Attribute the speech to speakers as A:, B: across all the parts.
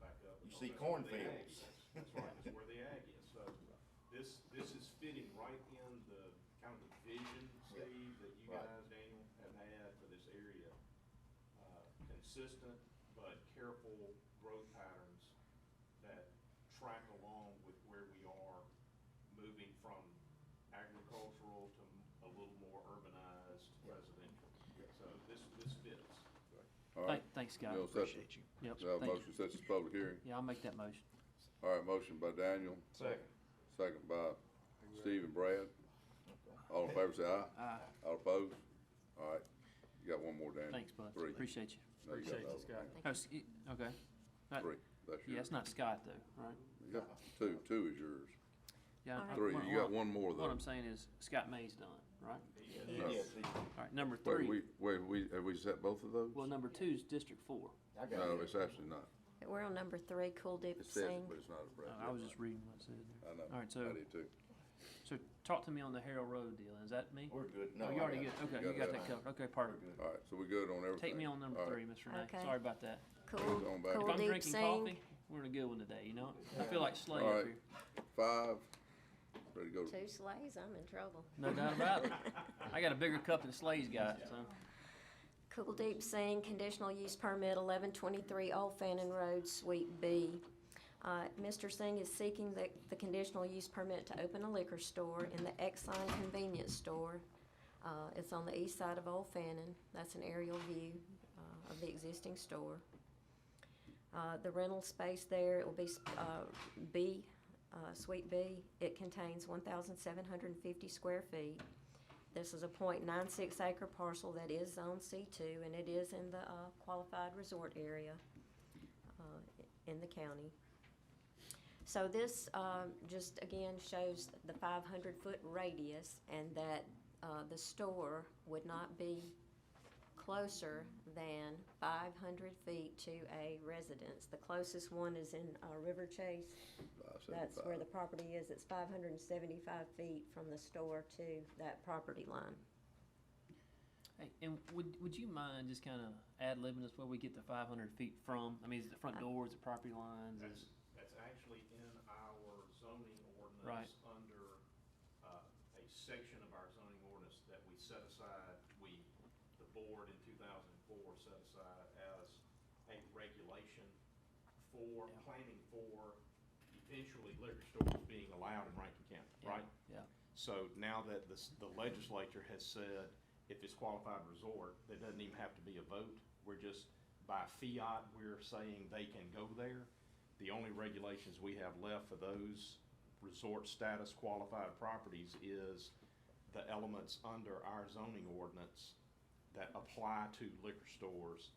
A: See
B: that's where the
A: cornfields.
B: ag is. That's right, that's where the ag is. So this, this is fitting right in the, kind of the vision,
A: Yeah.
B: Steve, that you
A: Right.
B: guys, Daniel, have had for this area. Uh, Consistent but careful growth patterns that track along with where we are moving from agricultural to a little more urbanized residential. So this, this fits.
C: All right.
D: Thank- Thanks, guys.
C: We'll set-
D: Appreciate you. Yep.
C: Do I have a
D: thank you.
C: motion to set this public hearing?
D: Yeah, I'll make that motion.
C: All right, motion by Daniel,
A: Second.
C: second by Steve and Brad. All in favor, say aye. Aye. All opposed? All right, you got one more, Daniel.
D: Thanks, bud.
C: Three.
D: Appreciate you.
C: No, you got
D: Appreciate
C: another.
D: you, Oh, s- y- Okay. Not-
C: Three, that's
D: Yeah,
C: yours.
D: it's not Scott though, right?
C: Yeah, Two, two is yours.
D: Yeah. I-
C: Three, you got one more
D: What I'm
C: though.
D: saying is Scott May's done, right?
A: Yes, he-
D: All right, number
C: Wait, we,
D: three.
C: wait, we, have we set both of those?
D: Well, number two's District Four.
A: I
C: No,
A: got
C: it's
A: it.
C: actually not.
E: We're on number three, Cool Deep
C: It says it, but
E: Sing.
C: it's not a
D: Uh,
C: breath.
D: I was just reading what it said there.
C: I know.
D: All right,
C: I
D: so,
C: did too.
D: so talk to me on the Harrell Road deal. Is that me?
A: We're good. No,
D: Oh, you
A: I
D: already
A: got
D: good.
A: it.
D: Okay,
C: You got
D: you got
C: it.
D: that covered. Okay,
A: We're
D: pardon.
A: good.
C: All right, so we good on everything?
D: Take me on number
C: All right.
D: three, Miss Renee.
E: Okay.
D: Sorry about that.
C: Hold
E: Cool,
C: on back.
D: If
E: Cool
D: I'm
E: Deep
D: drinking
E: Sing.
D: coffee, we're in a good one today, you know? I feel like Slay
C: All
D: up
C: right.
D: here.
C: Five, ready to go.
E: Two sleighs, I'm in trouble.
D: No doubt about it. I got a bigger cup than Slay's got, so.
E: Cool Deep Sing, conditional use permit, 1123 Old Fannin Road, Suite B. Uh, Mr. Singh is seeking the, the conditional use permit to open a liquor store in the Exxon Convenience Store. Uh, It's on the east side of Old Fannin. That's an aerial view uh, of the existing store. Uh, The rental space there, it will be uh, B, uh, Suite B. It contains 1,750 square feet. This is a .96 acre parcel that is zone C two, and it is in the uh, qualified resort area uh, in the county. So this um, just again shows the five hundred foot radius and that uh, the store would not be closer than five hundred feet to a residence. The closest one is in uh, River Chase,
C: Five, seven,
E: that's where the
C: five.
E: property is. It's five hundred and seventy-five feet from the store to that property line.
D: Hey, and would, would you mind just kind of ad-libbing us where we get the five hundred feet from? I mean, is it the front door, is it property lines?
B: That's,
D: Is-
B: that's actually in our zoning
D: Right.
B: ordinance under uh, a section of our zoning ordinance that we set aside, we, the board in 2004 set aside as a regulation for,
D: Yeah.
B: planning for eventually liquor stores being allowed in Rankin County,
D: yeah,
B: right?
D: Yeah,
B: So now that the, s- the legislature has said, if it's qualified resort, there doesn't even have to be a vote. We're just, by fiat, we're saying they can go there. The only regulations we have left for those resort status qualified properties is the elements under our zoning ordinance that apply to liquor stores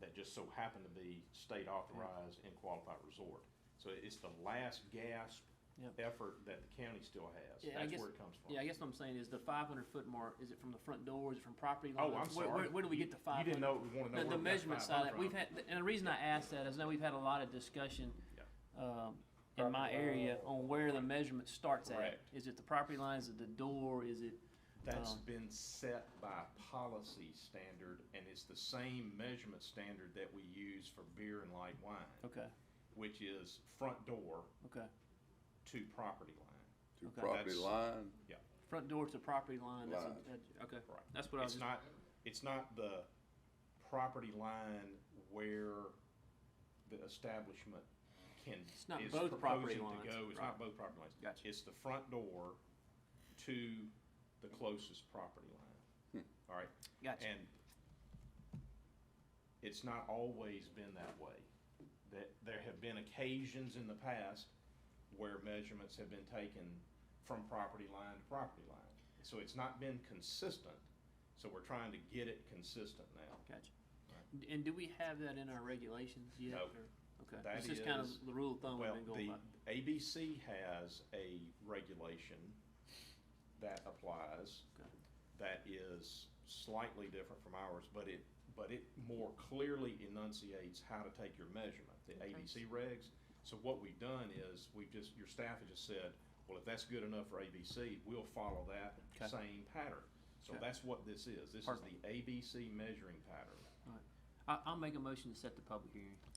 B: that just so happen to be state authorized and qualified resort. So it's the last gasp
D: Yep.
B: effort that the county still has.
D: yeah. I
B: That's
D: guess-
B: where it comes from.
D: Yeah, I guess what I'm saying is the five hundred foot mark, is it from the front door, is it from property lines?
B: Oh, I'm
D: Where-
B: sorry.
D: Where, where do we
B: You-
D: get the five
B: You didn't
D: hundred?
B: know, want to know where we
D: The,
B: got
D: the measurement side, of
B: 500
D: that, we've
B: from.
D: had, and the reason I asked that is now we've had a lot of discussion,
B: Yeah.
D: um, in my area on where the measurement starts at.
B: Correct.
D: Is it the property lines, is it the door, is it?
B: That's
D: Um,
B: been set by policy standard, and it's the same measurement standard that we use for beer and light wine,
D: Okay,
B: which is front door
D: okay.
B: to property line.
C: To
D: Okay.
C: property
B: That's-
C: line,
B: Yeah,
D: Front door to property line, that's, a-
C: Line.
D: that- okay,
B: right.
D: that's what I was.
B: It's
D: just-
B: not, it's not the property line where the establishment can.
D: It's not
B: is
D: both property
B: proposing to
D: lines,
B: go. It's
D: right.
B: not both property lines.
D: Gotcha.
B: It's the front door to the closest property line. All right?
D: Gotcha.
B: And it's not always been that way. That there have been occasions in the past where measurements have been taken from property line to property line. So it's not been consistent, so we're trying to get it consistent now.
D: Gotcha. D- And do we have that in our regulations yet?
B: No.
D: or- Okay,
B: That
D: it's just kind
B: is-
D: of the rule of thumb we've
B: Well,
D: been going by.
B: the ABC has a regulation that applies
D: Okay.
B: that is slightly different from ours, but it, but it more clearly enunciates how to take your measurement, the
E: Okay.
B: ABC regs. So what we've done is, we've just, your staff has just said, well, if that's good enough for ABC, we'll follow
D: Okay.
B: that same pattern. So
D: Okay.
B: that's what this is. This is the
D: Perfect.
B: ABC measuring pattern.
D: All right. I, I'll make a motion to set the public hearing.